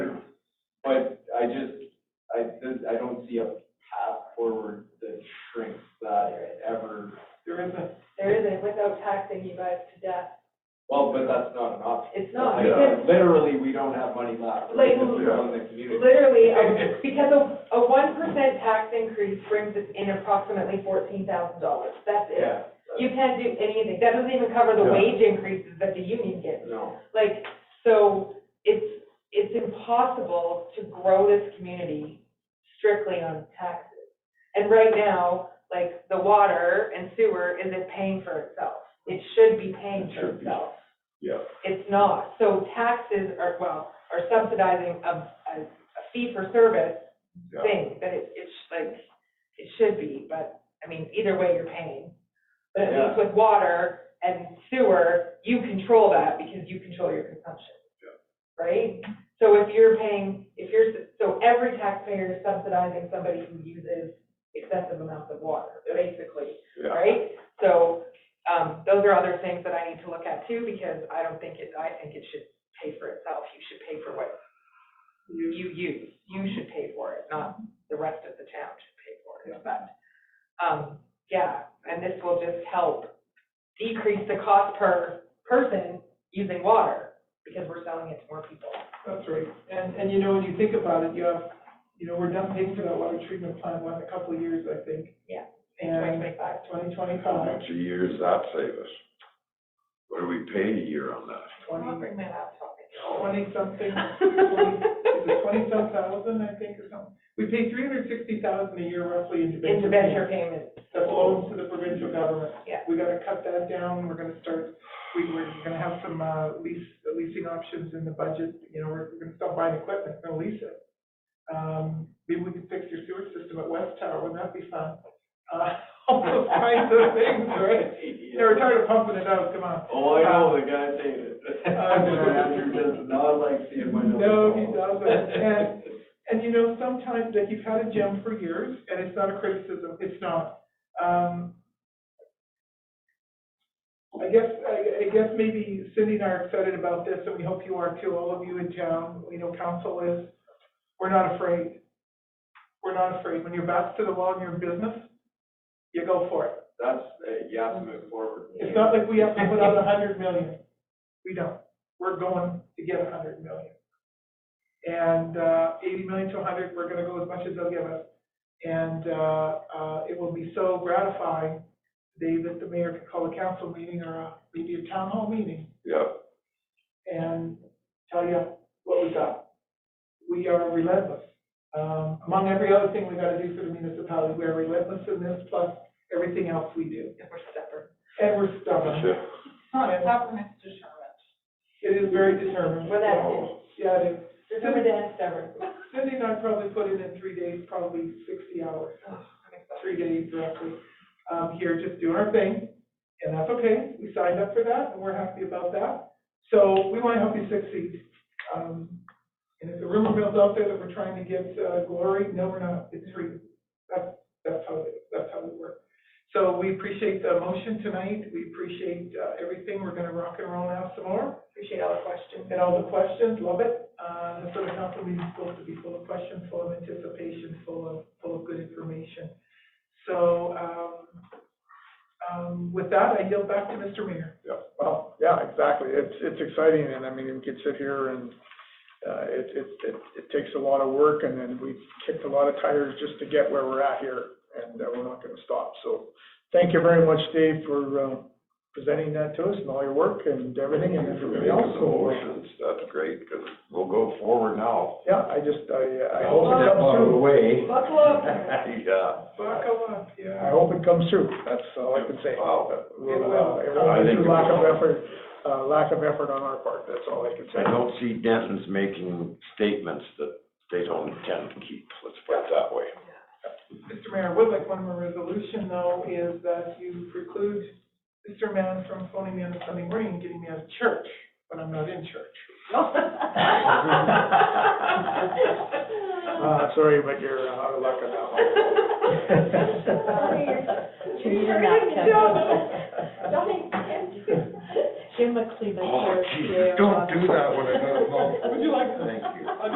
don't see a path forward that shrinks that ever. There isn't. There isn't, without taxing you guys to death. Well, but that's not an option. It's not, Like, because Literally, we don't have money left. Like- Because we own the community. literally, a- because a, a one percent tax increase brings us in approximately fourteen thousand dollars. That's it. Yeah. You can't do anything. That doesn't even cover the Yeah. wage increases that the union gives. No. Like, so it's, it's impossible to grow this community strictly on taxes. And right now, like, the water and sewer isn't paying for itself. It should be paying It for should be. itself. Yeah. It's not. So taxes are, well, are subsidizing a, a a fee for service Yeah. thing, that it, it's like, it should be, but, I mean, either way, you're paying. But at least with water and sewer, you control that because you control your consumption. Right? So if you're paying, if you're, so every taxpayer is subsidizing somebody who uses excessive amounts of water, basically, Yeah. right? So, um, those are other things that I need to look at too, because I don't think it, I think it should pay for itself. You should pay for what you use, you should pay for it, not the rest of the town should pay for it. But, um, yeah, and this will just help decrease the cost per person using water because we're selling it to more people. That's right, and, and you know, when you think about it, you have, you know, we're done paying for that water treatment plant one in a couple of years, I think, In And- 2025, twenty How twenty-five, much a year does that save us? What do we pay a year on that? I'll twenty, bring my laptop. twenty-something, twenty, is it twenty-some thousand, I think, or something? We pay three hundred sixty thousand a year roughly in debenture. Intervention payment, That belongs to the provincial government. Yeah. We gotta cut that down, we're gonna start, we, we're gonna have some, uh, lease, leasing options in the budget, you know, we're, we're gonna stop buying equipment, we're gonna lease it. Um, maybe we could fix your sewer system at West Tower, wouldn't that be fun? Uh, all those kinds of things, right? You know, we're tired of pumping it out, come on. Oh, I know, the guy saying it. I'm gonna have to just not like seeing my. No, he doesn't, and, and you know, sometimes, like, you've had a gem for years, and it's not a criticism, it's not. Um, I guess, I, I guess maybe Cindy and I are excited about this, and we hope you are too, all of you in town, we know council is, we're not afraid. We're not afraid, when your back's to the wall in your business, you go for it. That's, uh, you have to move forward. It's not like we have to put out a hundred million. We don't. We're going to get a hundred million. And, uh, eighty million to a hundred, we're gonna go as much as they'll give us. And, uh, uh, it will be so gratifying, Dave, that the mayor could call a council meeting or a, maybe a town hall meeting Yeah, and tell you what we got. We are relentless. Um, among every other thing we gotta do for the municipality, we're relentless in this, plus everything else we do. if we're separate. And we're stubborn. yeah. Not stubborn, it's determined. It is very determined. Well, that's it. Yeah, it is. Determined and stubborn. Cindy and I probably put in in three days, probably sixty hours, three days roughly, um, here, just doing our thing. And that's okay, we signed up for that, and we're happy about that. So we want to help you succeed. Um, and if the rumor mill's out there that we're trying to get uh, glory, no, we're not, it's free. That's, that's how, it- that's how we work. So we appreciate the motion tonight, we appreciate, uh, everything, we're gonna rock and roll now some more. Appreciate all the questions. And all the questions, love it. Uh, this sort of council meeting is supposed to be full of questions, full of anticipation, full of, full of good information. So, um, um, with that, I yield back to Mr. Mayor. Yeah, well, yeah, exactly. It's, it's exciting and I mean, we could sit here and, uh, it, it, it, it takes a lot of work and then we kicked a lot of tires just to get where we're at here and uh, we're not gonna stop. So thank you very much, Dave, for, um, presenting that to us and all your work and everything and everybody Making else. the So, uh, motions, that's great, because we'll go forward now. Yeah, I just, I, I hope it Step out comes of the through. way. Buckle up. Yeah. Buckle up, I yeah. hope it comes through. That's all I can say. Wow. We'll, will. uh, I It won't think be through it lack of will. effort, uh, lack of effort on our part. That's all I can I say. don't see Dentons making statements that they don't intend to keep, let's put it that way. Mr. Mayor, I would like one more resolution though, is that you preclude Mr. Mann from phoning me on a Sunday morning and getting me out of church when I'm not in church. Uh, sorry, but you're out of luck on that one. Give me your napkin. Don't intend to. Give him a cleavage. Oh, there, Jesus, dear. don't do that when I got a Would you like to? Thank you.